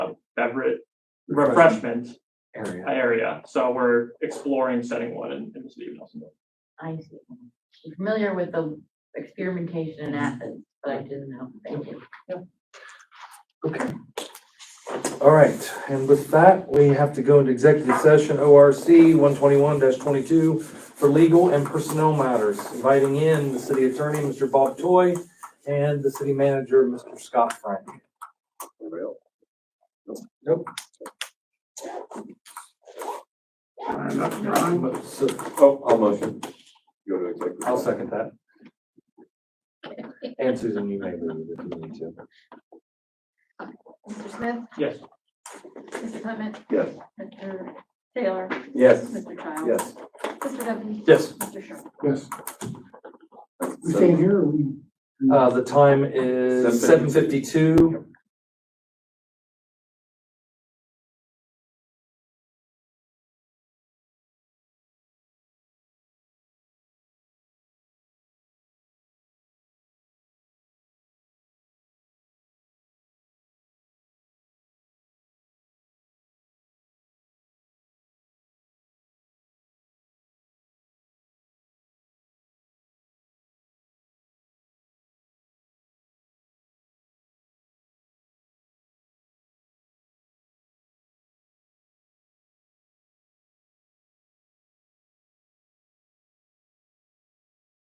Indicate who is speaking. Speaker 1: beverage refreshment area. So we're exploring setting one in, in the city of Nelsonville.
Speaker 2: I see. I'm familiar with the experimentation in Athens, but I didn't know. Thank you.
Speaker 3: Okay. All right, and with that, we have to go into executive session, ORC one twenty-one twenty-two for legal and personnel matters, inviting in the city attorney, Mr. Bob Toy, and the city manager, Mr. Scott Frank. Nope.
Speaker 1: I'm not drawing, but
Speaker 3: So,
Speaker 4: Oh, I'll motion. Go to executive.
Speaker 3: I'll second that. And Susan, you may move if you need to.
Speaker 5: Mr. Smith,
Speaker 1: yes.
Speaker 5: Mr. Clement,
Speaker 4: Yes.
Speaker 5: Mr. Taylor,
Speaker 3: Yes.
Speaker 5: Mr. Childs.
Speaker 4: Yes.
Speaker 5: Mr. Duffy,
Speaker 3: Yes.
Speaker 5: Mr. Sherman.
Speaker 6: Yes,
Speaker 4: That's
Speaker 6: we
Speaker 4: seven.
Speaker 6: came here, we.
Speaker 3: Uh, the time is seven
Speaker 4: 7:52.
Speaker 3: fifty-two.